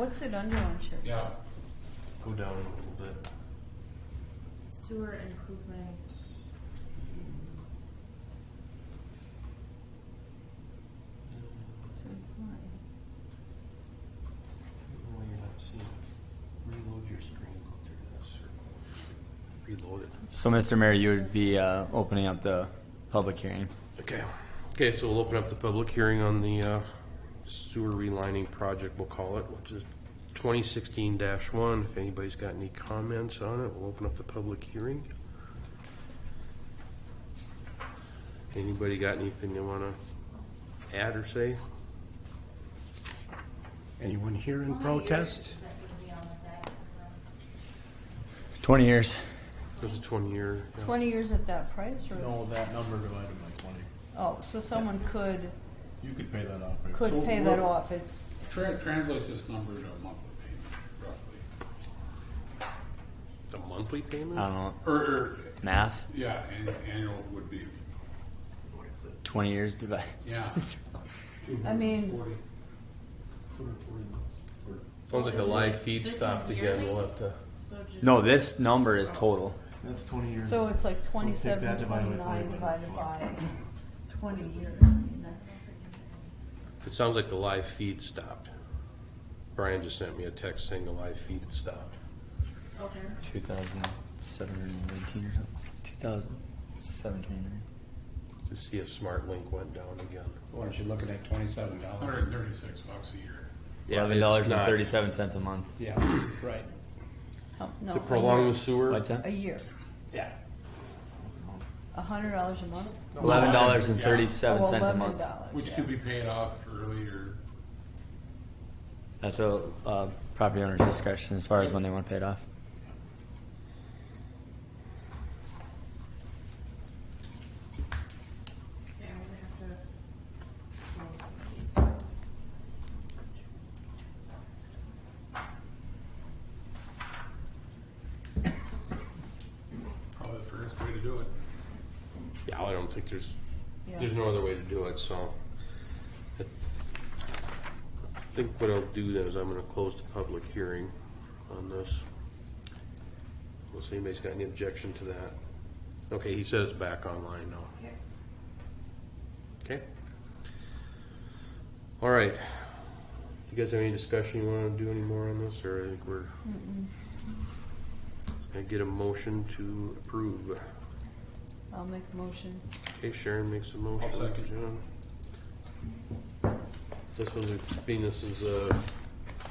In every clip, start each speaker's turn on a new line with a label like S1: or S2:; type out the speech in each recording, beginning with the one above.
S1: What's it under on Chip?
S2: Yeah,
S3: Go down a little bit.
S4: Sewer improvement.
S1: So it's not.
S3: Even though you're not seeing it. Reload your screen through that circle. Reload it.
S5: So, Mr. Mayor, you would be uh, opening up the public hearing.
S3: Okay. Okay, so we'll open up the public hearing on the uh, sewer relining project, we'll call it, which is twenty sixteen one. If anybody's got any comments on it, we'll open up the public hearing. Anybody got anything they wanna add or say?
S6: Anyone here in protest?
S5: 20 years.
S3: It's a twenty year. yeah.
S1: Twenty years at that price, or?
S6: No, that number divided by twenty.
S1: Oh, so someone could,
S6: You could pay that off. right?
S1: could
S2: So
S1: pay that
S2: we're-
S1: off, it's,
S2: tra- translate this number to a monthly payment, roughly.
S3: A monthly payment?
S5: I don't know.
S2: Or, or,
S5: Math?
S2: yeah, an- annual would be,
S5: 20 years divided.
S2: yeah.
S1: I mean,
S3: Sounds like the live feed
S4: This is
S3: stopped again,
S4: yearly?
S3: we'll have to,
S4: So just-
S5: No, this number is total.
S6: That's twenty years.
S1: so it's like
S6: take
S1: twenty-seven,
S6: that divided by
S1: twenty-nine
S6: 20.
S1: divided by twenty years, I mean, that's,
S3: it sounds like the live feed stopped. Brian just sent me a text saying the live feed had stopped.
S4: Okay.
S5: 2,719 or something. 2,729.
S3: To see if Smart Link went down again.
S7: Weren't you looking at twenty-seven dollars?
S2: Hundred and thirty-six bucks a year.
S3: Yeah, it's not-
S5: $11.37 a month.
S7: Yeah, right,
S1: oh, no.
S3: To
S1: a
S3: prolong
S1: year.
S3: the sewer?
S5: What's
S1: A
S5: that?
S1: year,
S7: yeah.
S1: a hundred dollars a month? Oh,
S5: $11.37 a
S1: $11
S5: month.
S2: Which could be paid off earlier.
S5: That's a uh, property owner's discretion as far as when they want to pay it off.
S4: Okay, I'm gonna have to close some of these.
S2: Probably the fairest way to do it.
S3: Yeah, I don't think there's,
S1: Yeah.
S3: there's no other way to do it, so. I think what I'll do then is I'm gonna close the public hearing on this. Unless anybody's got any objection to that. Okay, he says back online now.
S4: Okay.
S3: Okay. All right. You guys have any discussion you want to do any more on this, or I think we're gonna get a motion to approve.
S1: I'll make a motion,
S3: Okay, Sharon makes a motion.
S2: second.
S3: John. This one, being this is, uh,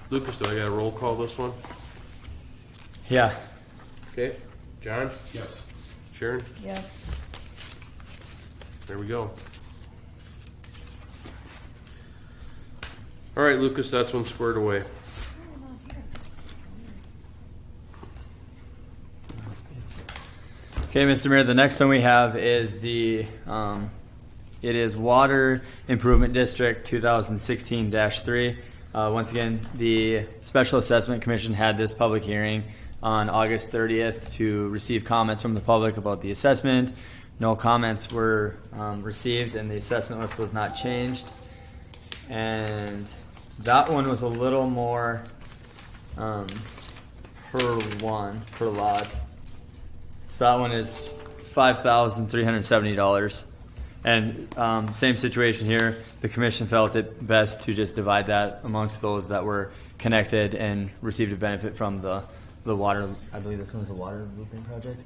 S3: Lucas, do I gotta roll call this one?
S5: Yeah.
S3: Okay, John,
S2: Yes,
S3: Sharon,
S1: yes,
S3: there we go. All right, Lucas, that's one squared away.
S5: Okay, Mr. Mayor, the next one we have is the, um, it is Water Improvement District two thousand sixteen three. Uh, once again, the Special Assessment Commission had this public hearing on August thirtieth to receive comments from the public about the assessment. No comments were, um, received and the assessment list was not changed. And that one was a little more, um, per one, per lot. So that one is five thousand three hundred seventy dollars, and um, same situation here. The commission felt it best to just divide that amongst those that were connected and received a benefit from the the water. I believe this one's a water looping project.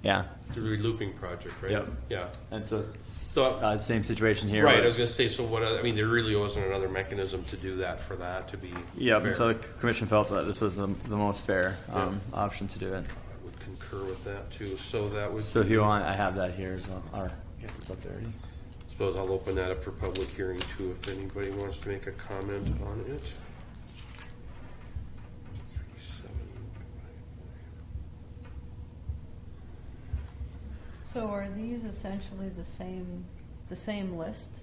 S5: Yeah,
S3: The relooping project, right?
S5: Yep.
S3: Yeah.
S5: and so
S3: So,
S5: uh, same situation here.
S3: Right, I was gonna say, so what, I mean, there really wasn't another mechanism to do that for that to be.
S5: yeah, and
S3: fair.
S5: so the commission felt that this was the, the most fair um,
S3: Yeah.
S5: option to do it.
S3: I Would concur with that too, so that would.
S5: So if
S3: be-
S5: you want, I have that here as well. Or I guess it's up there. already.
S3: Suppose I'll open that up for public hearing too, if anybody wants to make a comment on it.
S1: so are these essentially the same, the same list?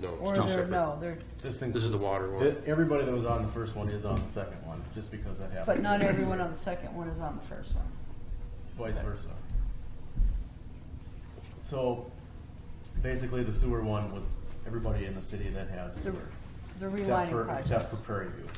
S3: No,
S1: Or
S3: it's two
S1: they're,
S3: separate.
S1: no, they're,
S6: Just think,
S3: This is the water one.
S6: that everybody that was on the first one is on the second one, just because that happened.
S1: but not everyone on the second one is on the first one.
S6: Vice versa. So, basically, the sewer one was everybody in the city that has
S1: Sewer.
S6: sewer.
S1: the
S6: Except
S1: relining
S6: for,
S1: project.
S6: except for Prairie View.